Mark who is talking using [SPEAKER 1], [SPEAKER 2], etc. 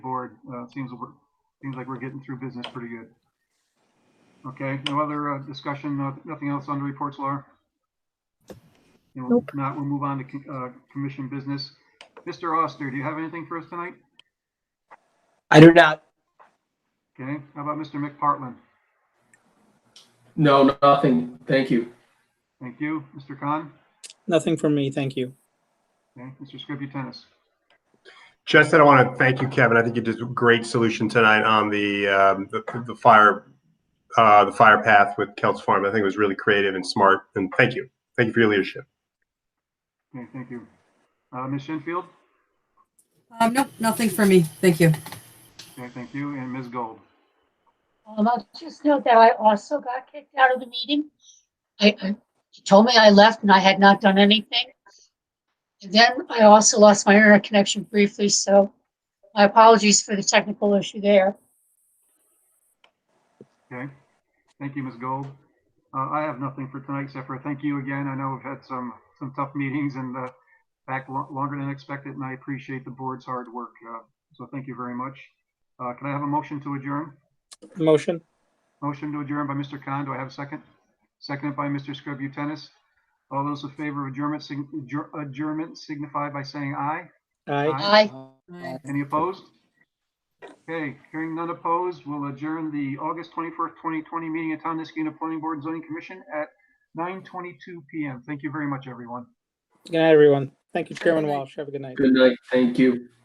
[SPEAKER 1] board. Uh, it seems, we're- seems like we're getting through business pretty good. Okay, no other uh, discussion, no- nothing else on the reports, Laura? You know, If not, we'll move on to co- uh, commission business. Mr. Oster, do you have anything for us tonight?
[SPEAKER 2] I do not.
[SPEAKER 1] Okay, how about Mr. McPartlin?
[SPEAKER 3] No, nothing. Thank you.
[SPEAKER 1] Thank you. Mr. Khan?
[SPEAKER 2] Nothing from me, thank you.
[SPEAKER 1] Okay, Mr. Scributinus?
[SPEAKER 4] Justin, I want to thank you, Kevin. I think you did a great solution tonight on the, um, the, the fire, uh, the fire path with Kelts Farm. I think it was really creative and smart. And thank you. Thank you for your leadership.
[SPEAKER 1] Okay, thank you. Uh, Ms. Shinfield?
[SPEAKER 5] Um, nope, nothing for me. Thank you.
[SPEAKER 1] Okay, thank you. And Ms. Gold?
[SPEAKER 6] Um, I'll just note that I also got kicked out of the meeting. I, I she told me I left and I had not done anything. And then I also lost my internet connection briefly, so my apologies for the technical issue there.
[SPEAKER 1] Okay, thank you, Ms. Gold. Uh, I have nothing for tonight except for thank you again. I know we've had some, some tough meetings and, uh, back lo- longer than expected, and I appreciate the board's hard work. Uh, so thank you very much. Uh, can I have a motion to adjourn?
[SPEAKER 2] Motion?
[SPEAKER 1] Motion to adjourn by Mr. Khan. Do I have a second? Seconded by Mr. Scributinus. All those in favor of adjournment, sign- adjour- adjournment signify by saying aye.
[SPEAKER 2] Aye.
[SPEAKER 1] Aye.
[SPEAKER 6] Aye.
[SPEAKER 1] Any opposed? Okay, hearing none opposed, we'll adjourn the August 21st, 2020 meeting of Town Niskiana Planning Board and Zoning Commission at 9:22 PM. Thank you very much, everyone.
[SPEAKER 2] Good night, everyone. Thank you, Chairman
[SPEAKER 5] night.
[SPEAKER 2] Walsh. Have a good night.
[SPEAKER 3] Good night. Thank you.